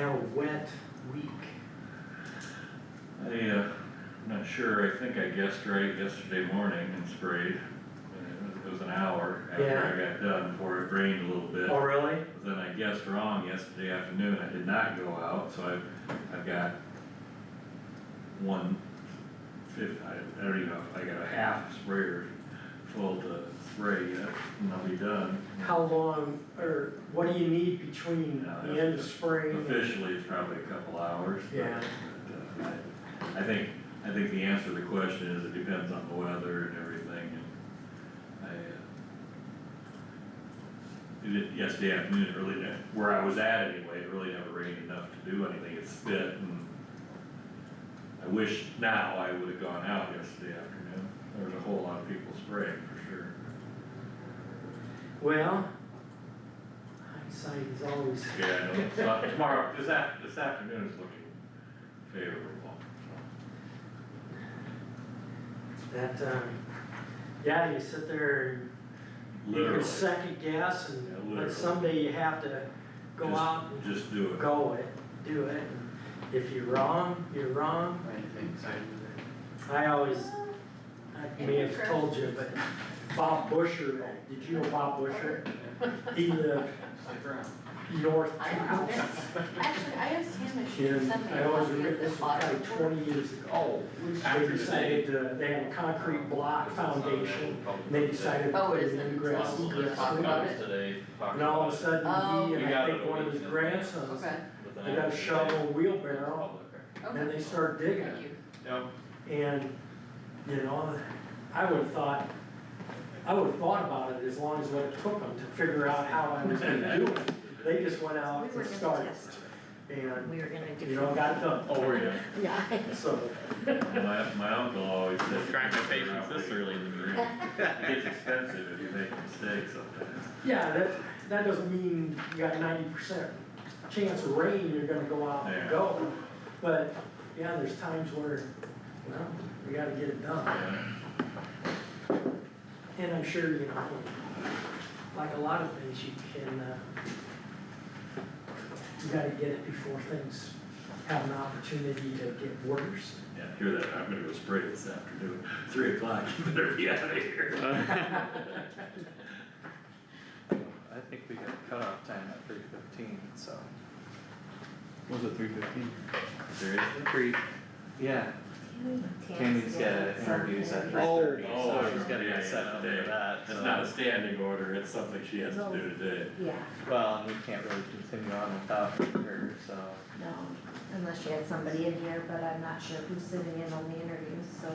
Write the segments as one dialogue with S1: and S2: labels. S1: uh,
S2: wet week.
S1: I, uh, I'm not sure, I think I guessed right yesterday morning and sprayed. And It was- it was an hour after I got done, before it rained a little bit.
S2: Oh, really?
S1: But Then I guessed wrong yesterday afternoon, I did not go out, so I've, I've got one fifth, I, I don't even know, I got a half sprayer full to spray yet, and I'll be done.
S2: How long, or what do you need between
S1: No,
S2: the end of
S1: that's-
S2: spring? and-
S1: Officially, it's probably a couple hours. but-
S2: Yeah.
S1: but, uh, I- I think, I think the answer to the question is it depends on the weather and everything and I, uh, it did yesterday afternoon, it really, ne- where I was at anyway, it really never rained enough to do anything, it spit and I wish now I would've gone out yesterday afternoon, there was a whole lot of people spraying for sure.
S2: Well, hindsight is always,
S1: Yeah, I know, it's not- tomorrow, this af, this afternoon is looking favorable, so.
S2: that, um, yeah, you sit there and you
S1: Literally,
S2: can second guess
S1: Yeah,
S2: and,
S1: literally.
S2: but someday you have to go
S1: Just-
S2: out and
S1: just do it.
S2: go it, do it. and If you're wrong, you're wrong. I always, I may have told you, but Bob Busher, did you know Bob Busher? He lived north.
S3: I don't know, that's, actually, I asked him if she could
S2: And
S3: send me
S2: I
S3: a
S2: always
S3: copy
S2: remember,
S3: of
S2: this
S3: the
S2: was
S3: audit
S2: probably
S3: report.
S2: twenty years ago. Oh, They
S4: After the
S2: decided to, they had a concrete block foundation, and they decided to
S3: Oh,
S2: put
S3: it is
S2: in
S3: in the
S2: grass
S3: Possible
S2: and
S3: there's
S2: grass.
S3: talk
S2: and-
S3: about it.
S4: today,
S2: And all of a sudden,
S3: Oh.
S2: he
S4: We
S2: and I
S4: got
S2: think
S4: it
S2: one of his
S4: leaking.
S2: grandsons,
S3: Okay,
S2: they got a shovel and wheelbarrow, and then
S3: okay,
S2: they started digging.
S3: thank you.
S2: And, you know, I would've thought, I would've thought about it as long as what it took them to figure out how I was gonna do it. They just went out
S5: We were
S2: and
S5: gonna
S2: started,
S5: test.
S2: and,
S5: We were gonna
S2: you know,
S5: do.
S2: got done,
S4: Oh, were you?
S5: Yeah.
S2: so,
S1: My, my uncle always said.
S4: Trying my patience this early in the morning.
S1: It gets expensive if you make mistakes sometimes.
S2: yeah, that, that doesn't mean you got ninety percent chance of rain, you're gonna go out and
S1: Yeah.
S2: go. But, yeah, there's times where, well, we gotta get it done.
S1: Yeah.
S2: And I'm sure, you know, like a lot of things, you can, uh, you gotta get it before things have an opportunity to get worse.
S1: Yeah, hear that, I'm gonna go spray this afternoon, three o'clock, you better be out of here.
S6: I think we got cutoff time at three fifteen, so. Was it three fifteen?
S1: Seriously?
S6: Three, yeah, Tammy's got interviews at three thirty,
S1: Oh,
S6: so she's gotta
S1: yeah,
S6: get set
S1: yeah,
S6: up
S1: today.
S6: for that,
S1: It's not a
S6: so.
S1: standing order, it's something she has to do today.
S5: Yeah,
S6: Well, and we can't really continue on without her, so.
S5: no, unless you had somebody in here, but I'm not sure who's sitting in on the interviews, so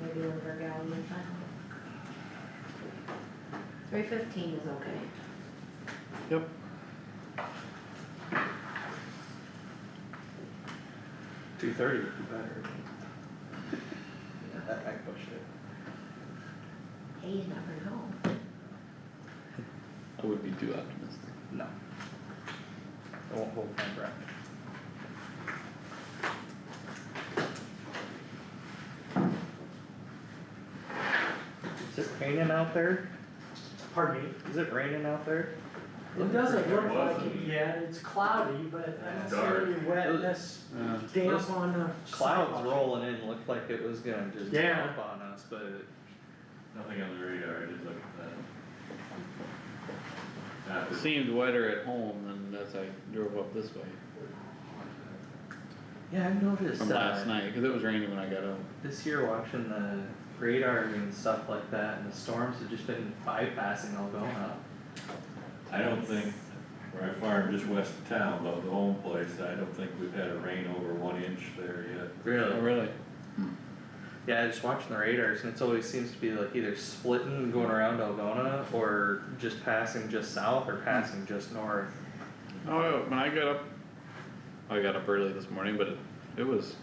S5: maybe Linda Gal will find out. Three fifteen is okay.
S6: Yep. Two thirty would be better. Yeah, I, I pushed it.
S5: Hey, you never know.
S7: I would be too optimistic.
S6: No. I won't hold my breath. Is it raining out there?
S2: Pardon me?
S6: Is it raining out there?
S2: It doesn't
S1: It
S2: look like it
S1: wasn't.
S2: yet, it's cloudy, but I don't
S1: Dark.
S2: see any wetness,
S7: Uh,
S2: damp
S6: Those
S2: on the.
S6: Clouds
S2: sidewalk.
S6: rolling in looked like it was gonna just
S2: Yeah.
S6: jump on us, but
S1: Nothing on the radar, I did look at that. That was-
S7: Seemed wetter at home than as I drove up this way
S6: yeah, I've noticed,
S7: from last
S6: uh,
S7: night, cause it was raining when I got home.
S6: this year watching the radar and stuff like that and the storms have just been bypassing Algona.
S1: I don't think, where I farm just west of town, though, the home place, I don't think we've had a rain over one inch there yet.
S7: Oh, really?
S6: Yeah, just watching the radars, and it's always seems to be like either splitting and going around Algona, or just passing just south, or passing just north.
S7: Oh, when I got up, I got up early this morning, but it, it was